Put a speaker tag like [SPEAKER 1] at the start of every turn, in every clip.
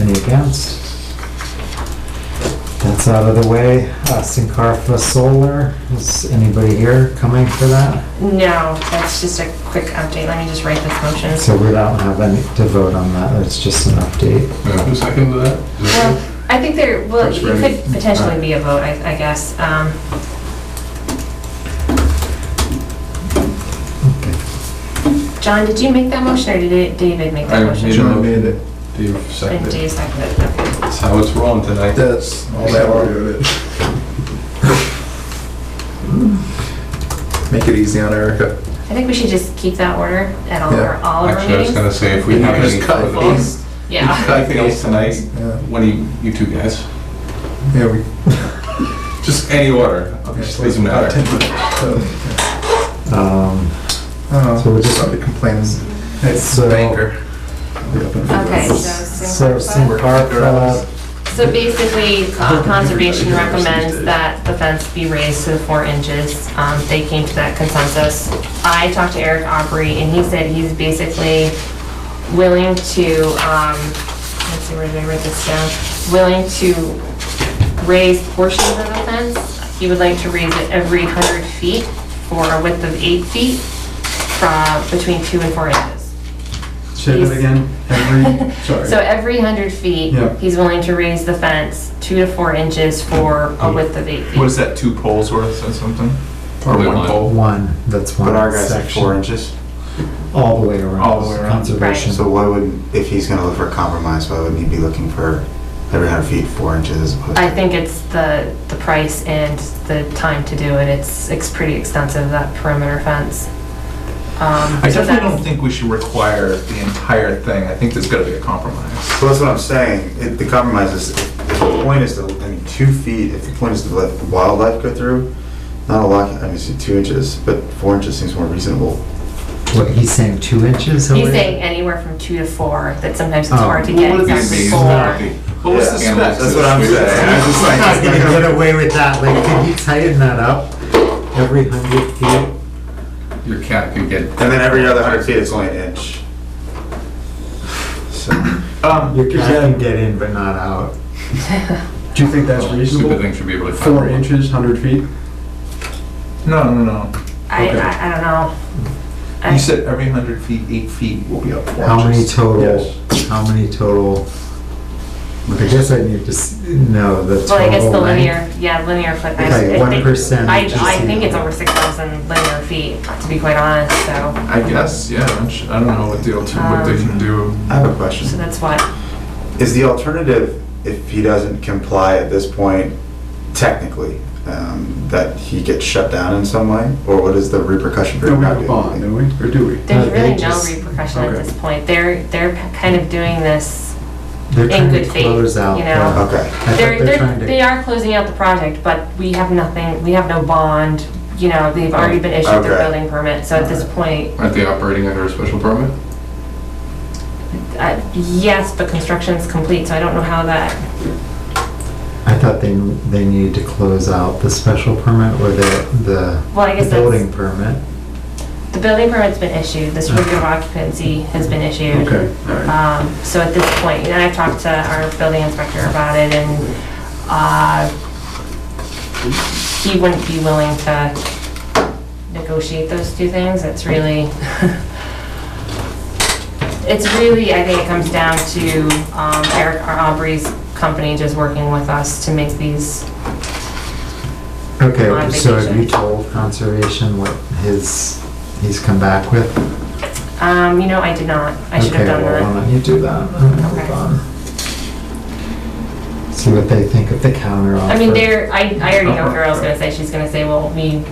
[SPEAKER 1] Any against? That's out of the way. Uh, Sincarfa Solar, is anybody here coming for that?
[SPEAKER 2] No, that's just a quick update. Let me just write this motion.
[SPEAKER 1] So we don't have any to vote on that, it's just an update.
[SPEAKER 3] Yeah, Who seconded that? Is that you?
[SPEAKER 2] Well, I think there, well, it
[SPEAKER 3] That's ready.
[SPEAKER 2] could potentially be a vote, I, I guess. Um, John, did you make that motion or did it- David make that
[SPEAKER 3] I
[SPEAKER 2] motion?
[SPEAKER 3] made it.
[SPEAKER 4] John made it.
[SPEAKER 3] Dave
[SPEAKER 2] And
[SPEAKER 3] seconded.
[SPEAKER 2] Dave seconded it, okay.
[SPEAKER 3] That's how it's rolling tonight.
[SPEAKER 4] That's all that ordered it. Make it easy on Erica.
[SPEAKER 2] I think we should just keep that order at all,
[SPEAKER 4] Yeah.
[SPEAKER 2] or all of our
[SPEAKER 3] Actually, I was
[SPEAKER 2] meetings.
[SPEAKER 3] gonna say, if we
[SPEAKER 4] You
[SPEAKER 3] have
[SPEAKER 4] can just
[SPEAKER 3] any
[SPEAKER 4] cut
[SPEAKER 3] further,
[SPEAKER 4] these.
[SPEAKER 2] Yeah,
[SPEAKER 3] anything else tonight,
[SPEAKER 4] Yeah,
[SPEAKER 3] what do you, you two guys,
[SPEAKER 4] yeah, we.
[SPEAKER 3] just any order, just doesn't matter.
[SPEAKER 4] I
[SPEAKER 1] Um,
[SPEAKER 4] don't
[SPEAKER 1] So
[SPEAKER 4] know,
[SPEAKER 1] we're just-
[SPEAKER 4] somebody complains. It's
[SPEAKER 1] So-
[SPEAKER 4] the banker.
[SPEAKER 2] okay,
[SPEAKER 1] So
[SPEAKER 2] so.
[SPEAKER 1] Sincarfa,
[SPEAKER 2] So basically, uh, Conservation recommends that the fence be raised to four inches. Um, They came to that consensus. I talked to Eric Aubrey, and he said he's basically willing to, um, let's see, where did I write this down? Willing to raise portions of the fence. He would like to raise it every 100 feet for a width of eight feet from between two and four inches.
[SPEAKER 4] Say
[SPEAKER 2] that
[SPEAKER 4] again, every, sorry.
[SPEAKER 2] So every 100 feet,
[SPEAKER 4] Yeah.
[SPEAKER 2] he's willing to raise the fence two to four inches for a width of eight feet.
[SPEAKER 5] What is that, two poles worth or something?
[SPEAKER 3] Probably one.
[SPEAKER 1] one, that's
[SPEAKER 6] But our
[SPEAKER 1] one
[SPEAKER 6] guy's at four
[SPEAKER 1] section,
[SPEAKER 6] inches,
[SPEAKER 1] all the way around.
[SPEAKER 5] All the way around.
[SPEAKER 1] Conservation.
[SPEAKER 6] so why would, if he's gonna look for a compromise, why wouldn't he be looking for every hundred feet, four inches as opposed to?
[SPEAKER 2] I think it's the, the price and the time to do it. It's, it's pretty extensive, that perimeter fence. Um,
[SPEAKER 5] I
[SPEAKER 2] so
[SPEAKER 5] definitely don't
[SPEAKER 2] that's,
[SPEAKER 5] think we should require the entire thing. I think there's gotta be a compromise.
[SPEAKER 6] So that's what I'm saying, it, the compromise is, if the point is to, I mean, two feet, if the point is to let wildlife go through, not a lot, I mean, see, two inches, but four inches seems more reasonable.
[SPEAKER 1] What, he's saying two inches? away?
[SPEAKER 2] he's saying anywhere from two to four, that sometimes it's
[SPEAKER 1] Oh.
[SPEAKER 2] hard to get
[SPEAKER 5] What would it be?
[SPEAKER 2] exactly
[SPEAKER 5] Exactly.
[SPEAKER 2] four.
[SPEAKER 5] What was the
[SPEAKER 6] Yeah,
[SPEAKER 5] specs?
[SPEAKER 6] That's what I'm saying, I'm just
[SPEAKER 1] I'm not gonna
[SPEAKER 6] like,
[SPEAKER 1] get away with that, like, can you tighten that up? Every hundred feet?
[SPEAKER 3] Your cat could get,
[SPEAKER 6] and then every other hundred feet, it's only an inch. So,
[SPEAKER 5] Um,
[SPEAKER 1] Your cat can get in but not out.
[SPEAKER 4] Do you think that's
[SPEAKER 3] Oh, stupid thing should be able to. find.
[SPEAKER 4] inches, hundred feet?
[SPEAKER 5] no, no, no.
[SPEAKER 2] I,
[SPEAKER 5] Okay.
[SPEAKER 2] I, I don't know. I-
[SPEAKER 5] You said every hundred feet, eight feet will be up four
[SPEAKER 1] How many
[SPEAKER 5] inches.
[SPEAKER 1] total, how many total? I guess I need to s- know the total.
[SPEAKER 2] Well, I guess the
[SPEAKER 1] length.
[SPEAKER 2] linear, yeah, linear foot. I-
[SPEAKER 1] Like
[SPEAKER 2] I
[SPEAKER 1] one
[SPEAKER 2] think-
[SPEAKER 1] percent
[SPEAKER 2] I,
[SPEAKER 1] is just
[SPEAKER 2] I think
[SPEAKER 1] the-
[SPEAKER 2] it's over six thousand linear feet, to be quite honest, so,
[SPEAKER 5] I guess, yeah. I'm sh- I don't know what the alter, what they can do.
[SPEAKER 6] I have a question.
[SPEAKER 2] so that's what.
[SPEAKER 6] Is the alternative, if he doesn't comply at this point, technically, um, that he gets shut down in some way? Or what is the repercussion for
[SPEAKER 4] No,
[SPEAKER 6] him
[SPEAKER 4] we
[SPEAKER 6] not
[SPEAKER 4] have a bond,
[SPEAKER 6] doing
[SPEAKER 4] don't we? Or do we?
[SPEAKER 2] There's
[SPEAKER 1] Uh, they
[SPEAKER 2] really no
[SPEAKER 1] just-
[SPEAKER 2] repercussion at
[SPEAKER 4] okay.
[SPEAKER 2] this point. They're, they're kind of doing this,
[SPEAKER 1] They're
[SPEAKER 2] in
[SPEAKER 1] trying to
[SPEAKER 2] good faith,
[SPEAKER 1] close out
[SPEAKER 2] you
[SPEAKER 1] the-
[SPEAKER 2] know.
[SPEAKER 6] it? Okay,
[SPEAKER 1] I think
[SPEAKER 2] they're,
[SPEAKER 1] they're trying
[SPEAKER 2] they're,
[SPEAKER 1] to-
[SPEAKER 2] they are closing out the project, but we have nothing, we have no bond, you know, they've
[SPEAKER 1] Oh,
[SPEAKER 2] already been issued their
[SPEAKER 6] Okay.
[SPEAKER 2] building permit, so at this point,
[SPEAKER 3] Aren't they operating under a special permit?
[SPEAKER 2] uh, yes, but construction's complete, so I don't know how that,
[SPEAKER 1] I thought they, they needed to close out the special permit or the,
[SPEAKER 2] well, I
[SPEAKER 1] the
[SPEAKER 2] guess
[SPEAKER 1] building
[SPEAKER 2] that's,
[SPEAKER 1] permit.
[SPEAKER 2] the building permit's been issued, the certificate of occupancy has been issued.
[SPEAKER 4] Okay, all right.
[SPEAKER 2] Um, so at this point, and I've talked to our building inspector about it and, uh, he wouldn't be willing to negotiate those two things. It's really, it's really, I think it comes down to, um, Eric Aubrey's company just working with us to make these,
[SPEAKER 1] Okay,
[SPEAKER 2] On
[SPEAKER 1] so have you
[SPEAKER 2] vacation.
[SPEAKER 1] told conservation what his, he's come back with?
[SPEAKER 2] um, you know, I did not. I should have done
[SPEAKER 1] Okay, well, why
[SPEAKER 2] that.
[SPEAKER 1] don't you do that? and
[SPEAKER 2] Okay.
[SPEAKER 1] move on. See what they think of the counter offer.
[SPEAKER 2] I mean, there, I, I already know what Carol's gonna say. She's gonna say, well, we,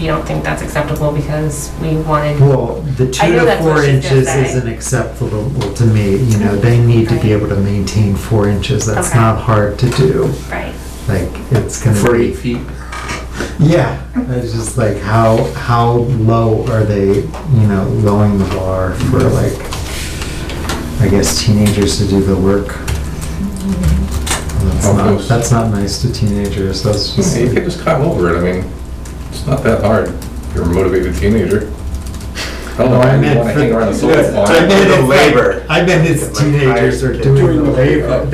[SPEAKER 2] we don't think that's acceptable because we wanted
[SPEAKER 1] Well, the
[SPEAKER 2] I
[SPEAKER 1] two
[SPEAKER 2] know
[SPEAKER 1] to
[SPEAKER 2] that's what
[SPEAKER 1] four
[SPEAKER 2] she's gonna
[SPEAKER 1] inches
[SPEAKER 2] say.
[SPEAKER 1] isn't acceptable to me, you know, they need to be
[SPEAKER 2] Right.
[SPEAKER 1] able to maintain four inches, that's
[SPEAKER 2] Okay.
[SPEAKER 1] not hard to do.
[SPEAKER 2] Right.
[SPEAKER 1] Like, it's gonna be.
[SPEAKER 3] For eight feet?
[SPEAKER 1] Yeah, it's just like, how, how low are they, you know, lowering the bar for like, I guess teenagers to do the work? That's
[SPEAKER 3] How
[SPEAKER 1] not,
[SPEAKER 3] close?
[SPEAKER 1] that's not nice to teenagers, that's just.
[SPEAKER 3] Yeah, You could just climb over it, I mean, it's not that hard, if you're a motivated teenager.
[SPEAKER 1] No, I meant for-
[SPEAKER 3] Hang around the solar farm.
[SPEAKER 1] I meant it's
[SPEAKER 6] the
[SPEAKER 1] like-
[SPEAKER 6] labor.
[SPEAKER 1] I meant it's
[SPEAKER 6] Like hired
[SPEAKER 1] teenagers are
[SPEAKER 6] kids.
[SPEAKER 1] doing
[SPEAKER 4] Doing
[SPEAKER 1] the
[SPEAKER 4] the labor.
[SPEAKER 1] labor.